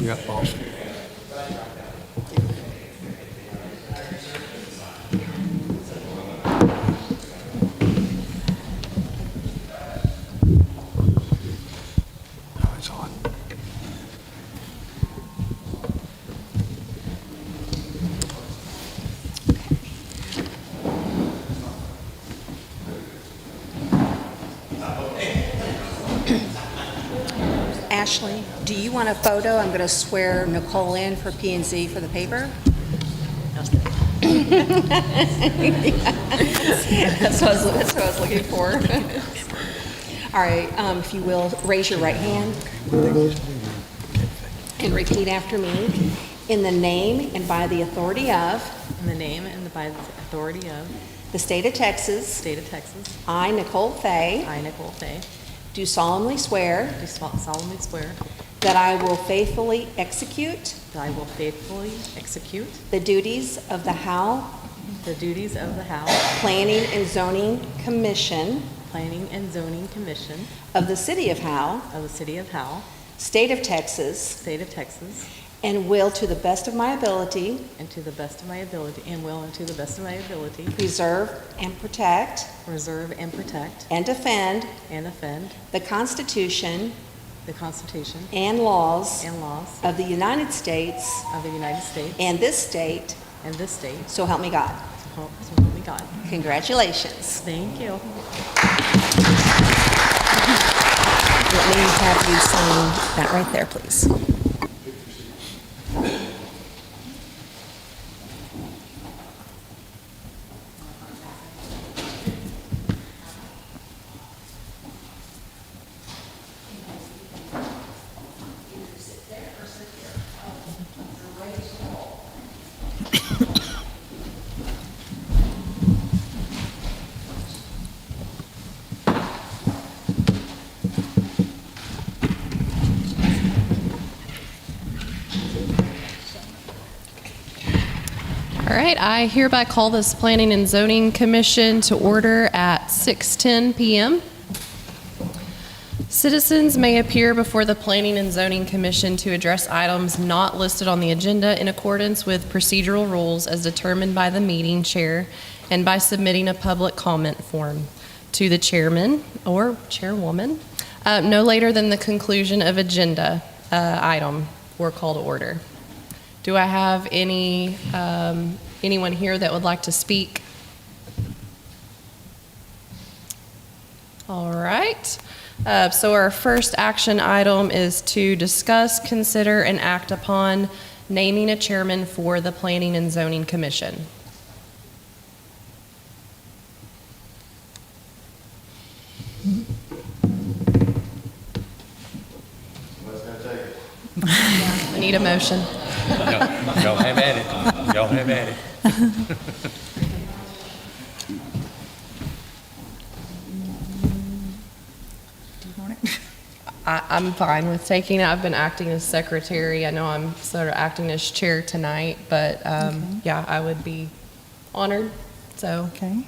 You got Boston. No, it's on. Ashley, do you want a photo? I'm going to swear Nicole in for P and Z for the paper. That's what I was, that's what I was looking for. All right, um, if you will, raise your right hand and repeat after me. In the name and by the authority of In the name and by the authority of the the state of Texas, state of Texas, I, Nicole Fay, I, Nicole Fay, do solemnly swear do solemnly swear that I will faithfully execute that I will faithfully execute the duties of the Howe the duties of the House Planning and Zoning Commission Planning and Zoning Commission of the City of Howe, of the City of Howell, State of Texas, State of Texas, and will, to the best of my ability, and to the best of my ability, and will and to the best of my ability, preserve and protect preserve and protect and defend and defend the Constitution the Constitution and laws and laws of the United States of the United States and this state, and this state, so help me God. so help so help me God. Congratulations. Thank you. Let me have you sign that right there, please. All right, I hereby call this Planning and Zoning Commission to order at 6:10 PM. Citizens may appear before the Planning and Zoning Commission to address items not listed on the agenda in accordance with procedural rules as determined by the meeting chair and by submitting a public comment form to the chairman or chairwoman uh, no later than the conclusion of agenda uh, item or call to order. Do I have any, um, anyone here that would like to speak? All right. Uh, so our first action item is to discuss, consider, and act upon naming a chairman for the Planning and Zoning Commission. I need a motion. Y'all have at it. Y'all have at it. I, I'm fine with taking it. I've been acting as secretary. I know I'm sort of acting as chair tonight, but um, yeah, I would be honored. So Okay.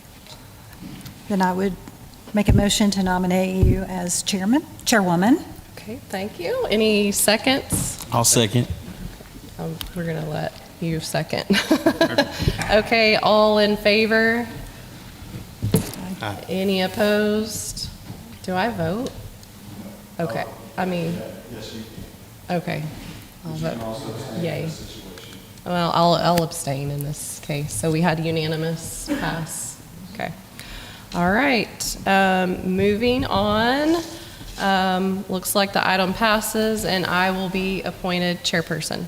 Then I would make a motion to nominate you as chairman, chairwoman. Okay, thank you. Any seconds? I'll second. Um, We're going to let you second. Okay, all in favor? Any opposed? Do I vote? Okay, I mean. Yes, you can. Okay. I'll vote. Yay. Well, I'll, I'll abstain in this case. So we had unanimous pass. Okay. All right, um, moving on. Um, looks like the item passes and I will be appointed chairperson.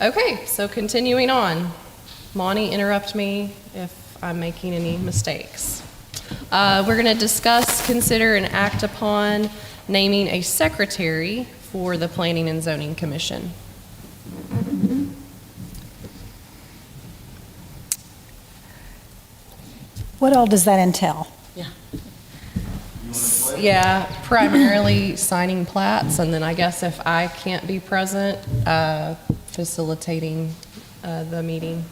Okay, so continuing on. Monty, interrupt me if I'm making any mistakes. Uh, we're going to discuss, consider, and act upon naming a secretary for the Planning and Zoning Commission. What all does that entail? Yeah, primarily signing plats, and then I guess if I can't be present, uh, facilitating uh, the meeting.